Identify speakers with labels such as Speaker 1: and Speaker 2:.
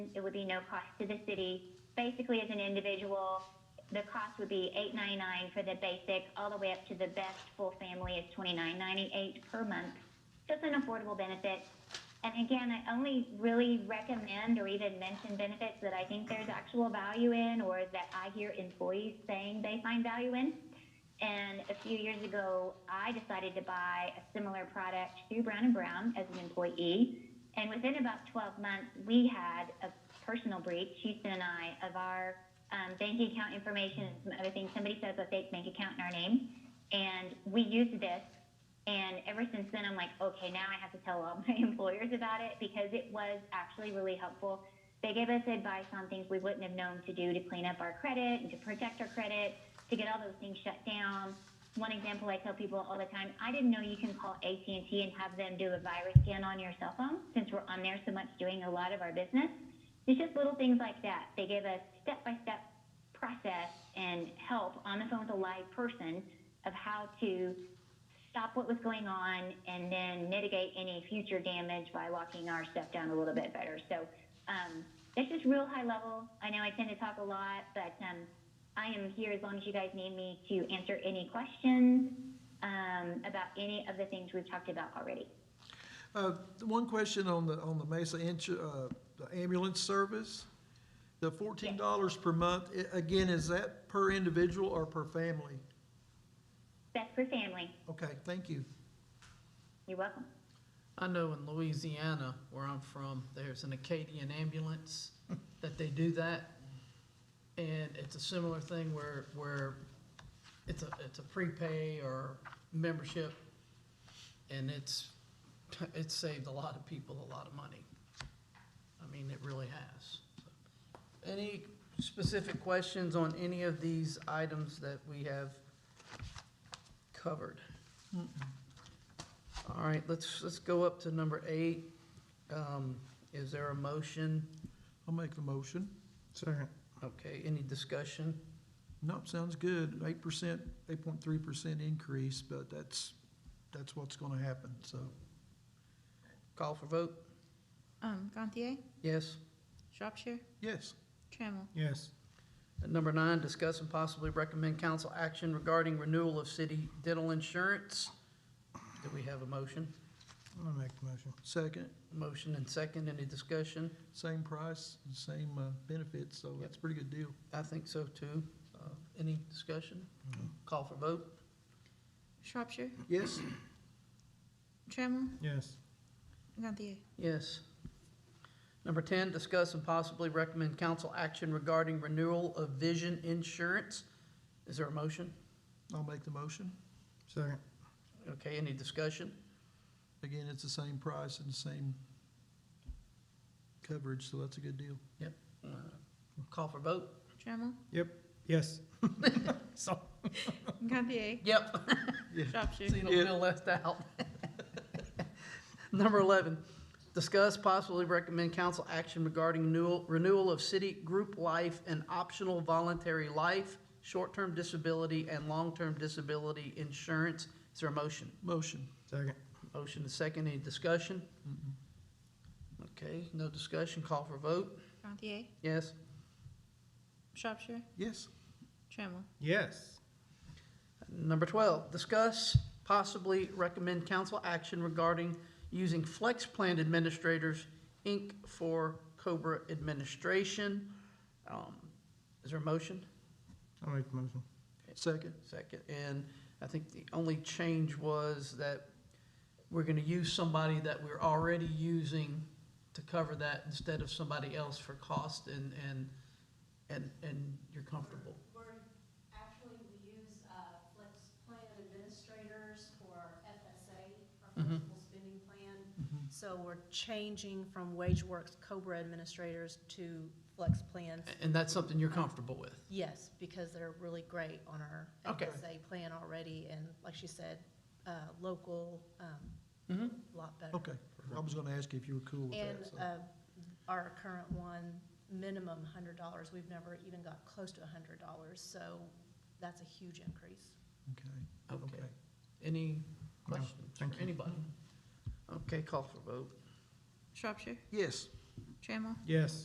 Speaker 1: It would be no cost to the city. Basically, as an individual, the cost would be eight ninety nine for the basic, all the way up to the best full family is twenty nine ninety eight per month. So it's an affordable benefit. And again, I only really recommend or even mention benefits that I think there's actual value in or that I hear employees saying they find value in. And a few years ago, I decided to buy a similar product through Brown and Brown as an employee. And within about 12 months, we had a personal breach, Houston and I, of our um, bank account information and some other things. Somebody set up a fake bank account in our name, and we used this. And ever since then, I'm like, okay, now I have to tell all my employers about it because it was actually really helpful. They gave us advice on things we wouldn't have known to do to clean up our credit and to protect our credit, to get all those things shut down. One example I tell people all the time: I didn't know you can call AT and T and have them do a virus scan on your cell phone since we're on there so much doing a lot of our business. It's just little things like that. They gave us step by step process and help on the phone with a live person of how to stop what was going on and then mitigate any future damage by locking our stuff down a little bit better. So um, that's just real high level. I know I tend to talk a lot, but um, I am here as long as you guys need me to answer any questions um, about any of the things we've talked about already.
Speaker 2: Uh, One question on the, on the Mesa insu- uh, the ambulance service. The fourteen dollars per month, i- again, is that per individual or per family?
Speaker 1: Best for family.
Speaker 2: Okay, thank you.
Speaker 1: You're welcome.
Speaker 3: I know in Louisiana, where I'm from, there's an Acadian ambulance that they do that. And it's a similar thing where, where it's a, it's a prepay or membership. And it's, it's saved a lot of people a lot of money. I mean, it really has. Any specific questions on any of these items that we have covered? All right, let's, let's go up to number eight. Um, Is there a motion?
Speaker 2: I'll make the motion.
Speaker 4: Second.
Speaker 3: Okay, any discussion?
Speaker 2: Nope, sounds good. Eight percent, eight point three percent increase, but that's, that's what's gonna happen, so.
Speaker 3: Call for vote?
Speaker 5: Um, Gantier,
Speaker 3: Yes.
Speaker 5: Shropshire,
Speaker 2: Yes,
Speaker 5: Trammell,
Speaker 4: Yes.
Speaker 3: And number nine, discuss and possibly recommend council action regarding renewal of city dental insurance. Do we have a motion?
Speaker 4: I'm gonna make the motion.
Speaker 2: second,
Speaker 3: Motion and second, any discussion?
Speaker 2: same price, same uh, benefits, so that's a pretty good deal.
Speaker 3: I think so too. Uh, Any discussion? Call for vote?
Speaker 5: Shropshire,
Speaker 2: Yes,
Speaker 5: Trammell,
Speaker 4: Yes.
Speaker 5: Gantier,
Speaker 3: Yes. Number 10, discuss and possibly recommend council action regarding renewal of vision insurance. Is there a motion?
Speaker 2: I'll make the motion.
Speaker 4: Second.
Speaker 3: Okay, any discussion?
Speaker 2: Again, it's the same price and same coverage, so that's a good deal.
Speaker 3: Uh, Call for vote?
Speaker 5: Trammell,
Speaker 4: Yep. Yes. So.
Speaker 5: Gantier,
Speaker 3: Yep.
Speaker 5: Shropshire,
Speaker 3: Seen a little left out. Number 11, discuss possibly recommend council action regarding renewal, renewal of city group life and optional voluntary life, short-term disability, and long-term disability insurance. Is there a motion?
Speaker 2: Motion.
Speaker 4: Second.
Speaker 3: Motion is second, any discussion?
Speaker 2: Mm-mm.
Speaker 3: Okay, no discussion, call for vote,
Speaker 5: Gantier,
Speaker 3: yes.
Speaker 5: Shropshire,
Speaker 2: Yes,
Speaker 5: Trammell,
Speaker 4: Yes.
Speaker 3: Number twelve, discuss, possibly recommend council action regarding using Flex Plan Administrators, Inc. for Cobra administration. Um, Is there a motion?
Speaker 4: I'll make the motion.
Speaker 2: second.
Speaker 3: Second, and I think the only change was that we're gonna use somebody that we're already using to cover that instead of somebody else for cost and, and, and, and you're comfortable.
Speaker 6: We're, actually, we use uh, Flex Plan Administrators for FSA, our
Speaker 2: Mm-hmm.
Speaker 6: Flexible Spending Plan. So we're changing from WageWorks Cobra Administrators to Flex Plans.
Speaker 3: A- And that's something you're comfortable with?
Speaker 6: Yes, because they're really great on our
Speaker 3: Okay.
Speaker 6: FSA plan already, and like she said, uh, local, um,
Speaker 3: Mm-hmm.
Speaker 6: lot better.
Speaker 2: Okay, I was gonna ask you if you were cool with
Speaker 6: And
Speaker 2: that, so.
Speaker 6: uh, our current one, minimum hundred dollars, we've never even got close to a hundred dollars, so that's a huge increase.
Speaker 2: Okay,
Speaker 3: Okay.
Speaker 2: okay.
Speaker 3: Any questions
Speaker 4: thank
Speaker 3: for
Speaker 4: you.
Speaker 3: anybody? Okay, call for vote.
Speaker 5: Shropshire,
Speaker 2: Yes,
Speaker 5: Trammell,
Speaker 4: Yes.